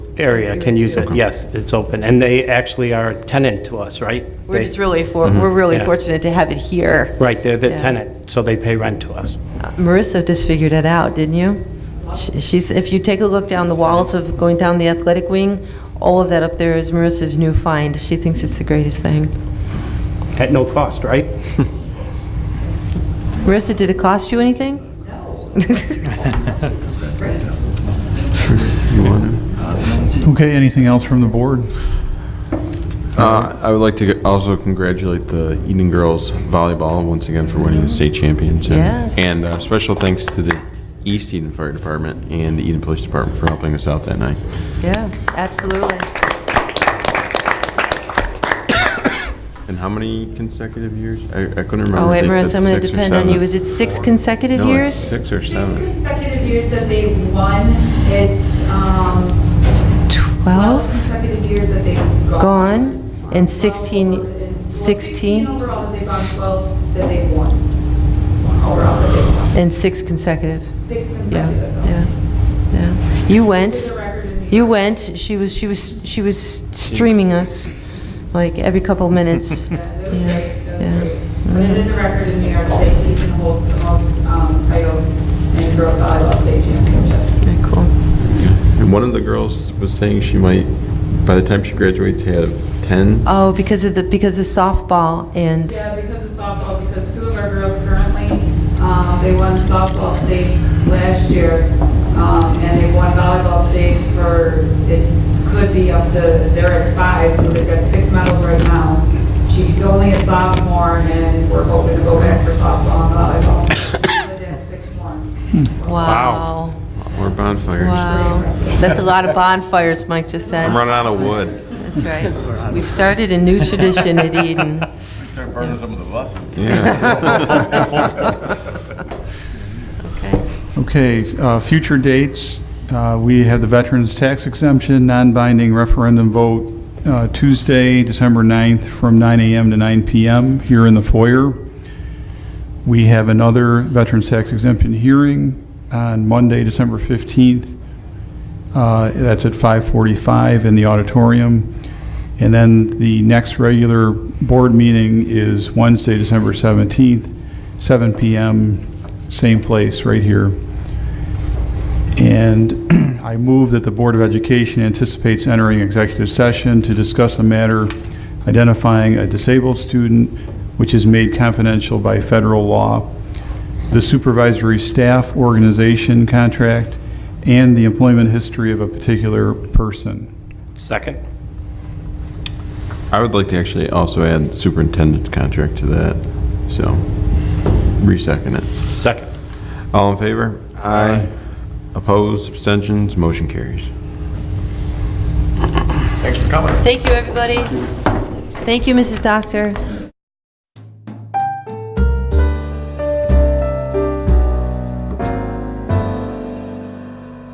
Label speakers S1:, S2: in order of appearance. S1: area can use it, yes, it's open. And they actually are a tenant to us, right?
S2: We're
S1: They-
S2: just really for,
S3: Mm-hmm.
S2: we're really
S1: Yeah.
S2: fortunate to have it here.
S1: Right, they're the
S2: Yeah.
S1: tenant, so they pay rent to us.
S2: Marissa just figured it out, didn't you? She- She's, if you take a look down the walls of going down the athletic wing, all of that up there is Marissa's new find. She thinks it's the greatest thing.
S1: At no cost, right?
S2: Marissa, did it cost you anything?
S4: Okay, anything else from the board?
S3: Uh, I would like to also congratulate the Eden girls volleyball once again for winning the state championship.
S2: Yeah.
S3: And uh, special thanks to the East Eden Fire Department and the Eden Police Department for helping us out that night.
S2: Yeah, absolutely.
S3: And how many consecutive years? I, I couldn't remember.
S2: Oh, wait,
S3: if they
S2: Marissa,
S3: said
S2: I'm going to
S3: six or
S2: depend on you.
S3: seven.
S2: Is it six consecutive
S3: No, it's
S2: years?
S3: six or
S5: Six
S3: seven.
S5: consecutive years that they won, it's, um, 12
S2: 12
S5: consecutive years that they've gone.
S2: gone and 16,
S5: Well, 16
S2: 16
S5: overall that they've gone, 12 that they've won. One overall that they've won.
S2: and six consecutive.
S5: Six
S2: Yeah,
S5: consecutive. though.
S2: yeah, yeah. You went,
S5: a record in New
S2: you went, she was, she was, she was streaming us, like, every couple minutes.
S5: That was great, that was
S2: Yeah,
S5: great. But it is a record in New York State, Ethan holds the most um, titles in girls volleyball state championships.
S2: Very cool.
S3: And one of the girls was saying she might, by the time she graduates, have 10.
S2: Oh, because of the, because of softball and,
S5: Yeah, because of softball, because two of our girls currently, um, they won softball states last year, um, and they won volleyball states for, it could be up to, they're at five, so they've got six medals right now. She's only a sophomore, and we're hoping to go back for softball and volleyball. But that's six more.
S2: wow.
S3: More bonfires.
S2: Wow. That's a lot of bonfires, Mike just
S3: I'm
S2: said.
S3: running out of wood.
S2: That's right. We've started a new tradition at Eden.
S6: Start burning some of the buses.
S2: Okay.
S4: Okay, uh, future dates, uh, we have the Veterans Tax Exemption Non-Binding Referendum Vote uh, Tuesday, December 9th, from 9 a.m. to 9 p.m. here in the foyer. We have another Veterans Tax Exemption hearing on Monday, December 15th. Uh, That's at 5:45 in the auditorium. And then the next regular board meeting is Wednesday, December 17th, 7 PM, same place, right here. And I move that the Board of Education anticipates entering executive session to discuss a matter identifying a disabled student which is made confidential by federal law, the supervisory staff organization contract, and the employment history of a particular person.
S1: Second?
S3: I would like to actually also add superintendent's contract to that, so re-second it.
S1: Second.
S3: All in favor? Aye. Opposed, abstentions, motion carries.
S6: Thanks for coming.
S2: Thank you, everybody. Thank you, Mrs. Doctor.